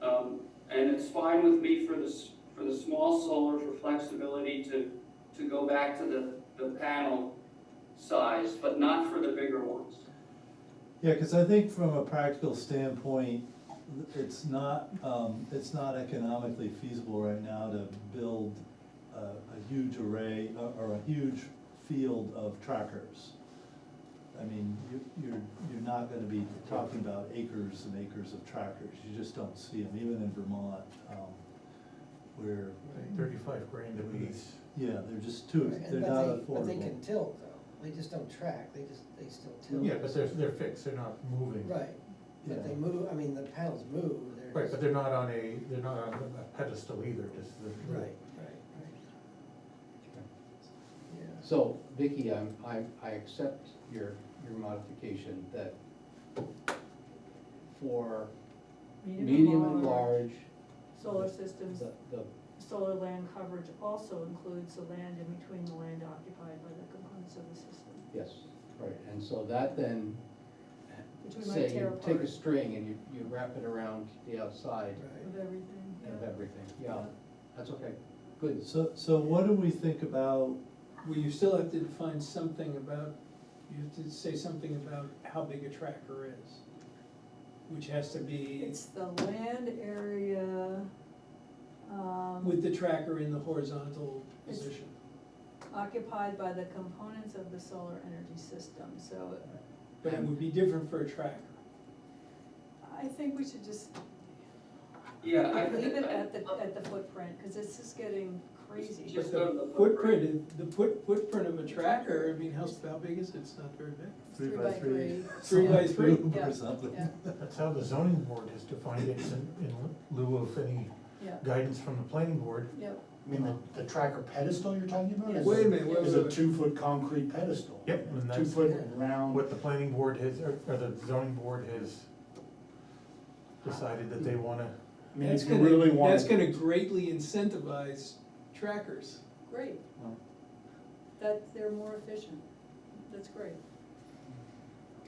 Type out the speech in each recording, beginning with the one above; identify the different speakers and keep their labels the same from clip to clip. Speaker 1: Um, And it's fine with me for the, s- for the small solar for flexibility to, to go back to the, the panel size, but not for the bigger ones.
Speaker 2: Yeah, cause I think from a practical standpoint, it's not, um, it's not economically feasible right now to build a, a huge array, or, or a huge field of trackers. I mean, you, you're, you're not gonna be talking about acres and acres of trackers, you just don't see them, even in Vermont, um, where,
Speaker 3: Thirty-five grand a piece.
Speaker 2: yeah, they're just too,
Speaker 4: Right,
Speaker 2: they're
Speaker 4: but
Speaker 2: not
Speaker 4: they- But they can
Speaker 2: affordable.
Speaker 4: tilt though, they just don't track, they just, they still tilt.
Speaker 3: Yeah, but they're, they're fixed, they're not moving.
Speaker 4: Right, but they
Speaker 2: Yeah.
Speaker 4: move, I mean, the panels move, they're.
Speaker 3: Right, but
Speaker 4: just-
Speaker 3: they're not on a, they're not on a pedestal either, just the.
Speaker 4: Right, right, right. Yeah,
Speaker 5: So Vicky, I'm, I, I accept your, your modification that for medium and large,
Speaker 6: Solar systems,
Speaker 5: the, the,
Speaker 6: solar land coverage also includes the land in between the land occupied by the components of the system,
Speaker 5: yes, right, and so that then,
Speaker 6: which we
Speaker 5: say,
Speaker 6: might tear
Speaker 5: you take
Speaker 6: apart
Speaker 5: a string and you, you wrap it around the outside
Speaker 4: right.
Speaker 6: of everything.
Speaker 5: of
Speaker 6: yeah.
Speaker 5: everything, yeah, that's okay, good.
Speaker 2: So, so what do we think about
Speaker 7: Well, you still have to define something about, you have to say something about how big a tracker is, which has to be
Speaker 6: It's the land area, um,
Speaker 7: with the tracker in the horizontal
Speaker 6: It's-
Speaker 7: position.
Speaker 6: occupied by the components of the solar energy system, so
Speaker 7: But it would be different for a tracker.
Speaker 6: I think we should just
Speaker 1: Yeah, I.
Speaker 6: leave it at the, at the footprint, cause this is getting crazy.
Speaker 1: Just go to the footprint.
Speaker 7: Footprint, the foot, footprint of a tracker, I mean, how, how big is it? It's not very big.
Speaker 2: three by three?
Speaker 7: Three by three,
Speaker 2: Cube
Speaker 6: yeah,
Speaker 2: Or something?
Speaker 6: yeah.
Speaker 3: That's how the zoning board has defined it, in, in lieu of any
Speaker 6: Yeah,
Speaker 3: guidance from the planning board.
Speaker 6: yeah,
Speaker 8: I mean, the, the tracker pedestal you're talking about? is-
Speaker 7: Wait a minute, wait,
Speaker 8: Is
Speaker 7: wait,
Speaker 8: a
Speaker 7: wait.
Speaker 8: two-foot concrete pedestal.
Speaker 3: Yep, and
Speaker 8: Two
Speaker 3: that's-
Speaker 8: foot round.
Speaker 3: What the planning board has, or, or the zoning board has decided that they wanna,
Speaker 8: I mean, if
Speaker 7: That's
Speaker 8: you
Speaker 7: gonna-
Speaker 8: really want.
Speaker 7: That's gonna greatly incentivize trackers.
Speaker 6: great.
Speaker 8: Well.
Speaker 6: That, they're more efficient, that's great.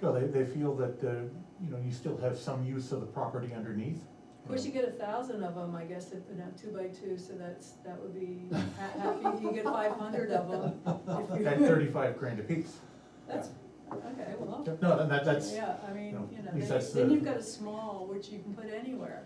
Speaker 3: well, they, they feel that, uh, you know, you still have some use of the property underneath.
Speaker 6: Of course, you get a thousand of them, I guess, if, no, two by two, so that's, that would be, ha- half, you get five hundred of them. if you-
Speaker 3: At thirty-five grand a piece.
Speaker 6: That's, okay, well,
Speaker 3: No, and that, that's,
Speaker 6: yeah, I mean,
Speaker 3: No,
Speaker 6: you
Speaker 3: at
Speaker 6: know,
Speaker 3: least
Speaker 6: then,
Speaker 3: that's
Speaker 6: then
Speaker 3: the-
Speaker 6: you've got a small, which you can put anywhere.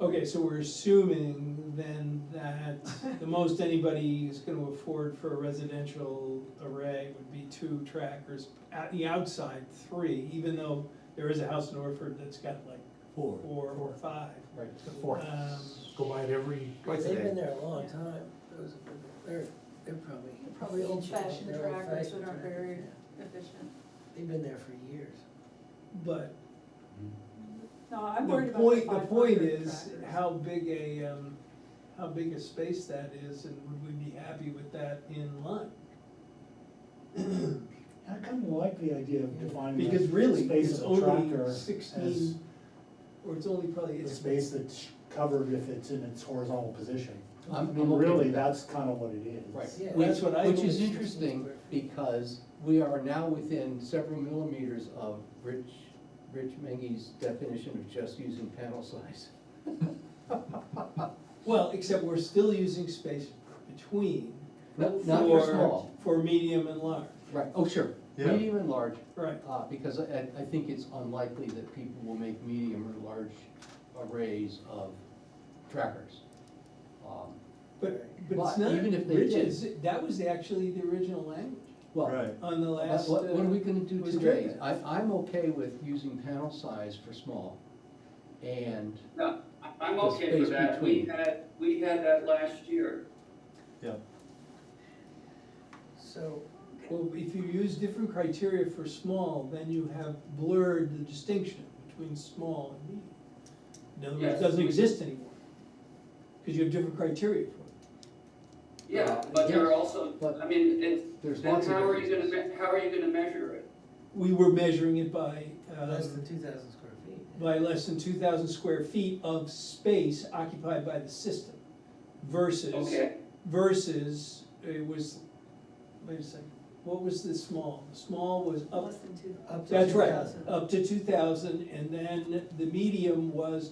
Speaker 7: Okay, so we're assuming then that the most anybody is gonna afford for a residential array would be two trackers. At the outside, three, even though there is a house in Orford that's got like
Speaker 2: Four.
Speaker 7: four or five.
Speaker 5: Right.
Speaker 3: the fourth,
Speaker 7: Um,
Speaker 3: go by it every, twice a
Speaker 4: They've been
Speaker 3: day.
Speaker 4: there a long time, those, are- they're, they're probably.
Speaker 6: Probably
Speaker 4: ancient,
Speaker 6: old-fashioned
Speaker 4: they're
Speaker 6: trackers
Speaker 4: old-fashioned
Speaker 6: that aren't
Speaker 4: trackers,
Speaker 6: very
Speaker 4: yeah.
Speaker 6: efficient.
Speaker 4: They've been there for years.
Speaker 7: But
Speaker 6: No, I'm
Speaker 7: the
Speaker 6: worried about the
Speaker 7: point, the
Speaker 6: five
Speaker 7: point
Speaker 6: hundred
Speaker 7: is
Speaker 6: trackers.
Speaker 7: how big a, um, how big a space that is and would we be happy with that in line?
Speaker 8: I kind of like the idea of defining
Speaker 7: Because
Speaker 8: the
Speaker 7: really,
Speaker 8: space
Speaker 7: it's
Speaker 8: of a tracker
Speaker 7: only
Speaker 8: as
Speaker 7: sixteen, or it's only probably,
Speaker 8: the
Speaker 7: it's
Speaker 8: space that's covered if it's in its horizontal position. I
Speaker 5: I'm-
Speaker 8: mean,
Speaker 5: I'm okay with
Speaker 8: really,
Speaker 5: that.
Speaker 8: that's kind of what it is.
Speaker 5: Right,
Speaker 4: Yeah,
Speaker 5: which,
Speaker 7: that's what I
Speaker 5: which is
Speaker 7: always-
Speaker 5: interesting, because we are now within several millimeters of Rich, Rich Mengi's definition of just using panel size.
Speaker 7: Well, except we're still using space between.
Speaker 5: Not, not for small,
Speaker 7: For medium and large,
Speaker 5: right, oh, sure,
Speaker 2: Yeah.
Speaker 5: medium and large,
Speaker 7: right.
Speaker 5: uh, because I, I think it's unlikely that people will make medium or large arrays of trackers. Um,
Speaker 7: But, but it's
Speaker 5: But
Speaker 7: not,
Speaker 5: even if they
Speaker 7: Rich
Speaker 5: did-
Speaker 7: is, that was actually the original language
Speaker 5: Well,
Speaker 2: Right,
Speaker 7: on the
Speaker 5: what,
Speaker 7: last.
Speaker 5: what what are we
Speaker 7: uh,
Speaker 5: gonna do
Speaker 7: was
Speaker 5: today?
Speaker 7: driven.
Speaker 5: I, I'm okay with using panel size for small, and
Speaker 1: No, I- I'm
Speaker 5: The
Speaker 1: okay for
Speaker 5: space
Speaker 1: that. We
Speaker 5: between.
Speaker 1: had, we had that last year.
Speaker 4: So,
Speaker 7: uh, Well, if you use different criteria for small, then you have blurred the distinction between small and medium. In other words,
Speaker 1: Yes.
Speaker 7: it doesn't exist anymore, because you have different criteria for it.
Speaker 1: Yeah, but there are
Speaker 5: Uh, Yes,
Speaker 1: also,
Speaker 5: but-
Speaker 1: I mean, it's,
Speaker 5: There's
Speaker 1: then
Speaker 5: lots of
Speaker 1: how are you gonna,
Speaker 5: differences.
Speaker 1: me- how are you gonna measure it?
Speaker 7: We were measuring it by, um,
Speaker 4: less than two thousand square feet.
Speaker 7: by less than two thousand square feet of space occupied by the system versus,
Speaker 1: Okay,
Speaker 7: versus, it was, wait a second, what was the small? The small was up,
Speaker 6: Less than two.
Speaker 4: Up to
Speaker 7: that's right,
Speaker 4: 2,000.
Speaker 7: up to two thousand, and then the medium was